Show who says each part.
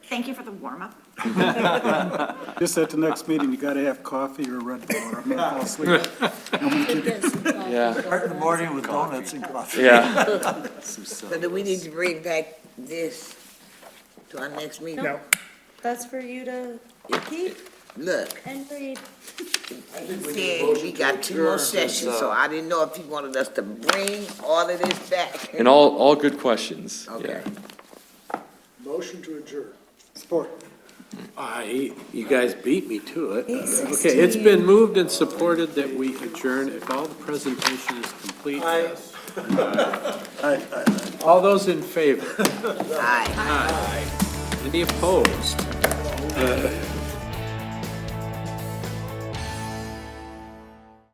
Speaker 1: Thank you for the warm-up.
Speaker 2: Just at the next meeting, you gotta have coffee or Red Bull, or I'm gonna fall asleep.
Speaker 3: Yeah,
Speaker 4: Start in the morning with donuts and coffee.
Speaker 3: yeah.
Speaker 5: So do we need to bring back this to our next meeting?
Speaker 6: No. That's for you to keep
Speaker 5: Look,
Speaker 6: and read.
Speaker 5: he said we got two more sessions, so I didn't know if he wanted us to bring all of this back.
Speaker 3: And all, all good questions.
Speaker 5: Okay.
Speaker 3: Yeah.
Speaker 2: Motion to adjourn. Support.
Speaker 7: I, Ah, you guys beat me to it. Okay, it's been moved and supported that we adjourn if all the presentation is complete. yes. All those in favor?
Speaker 5: Aye.
Speaker 7: Any opposed?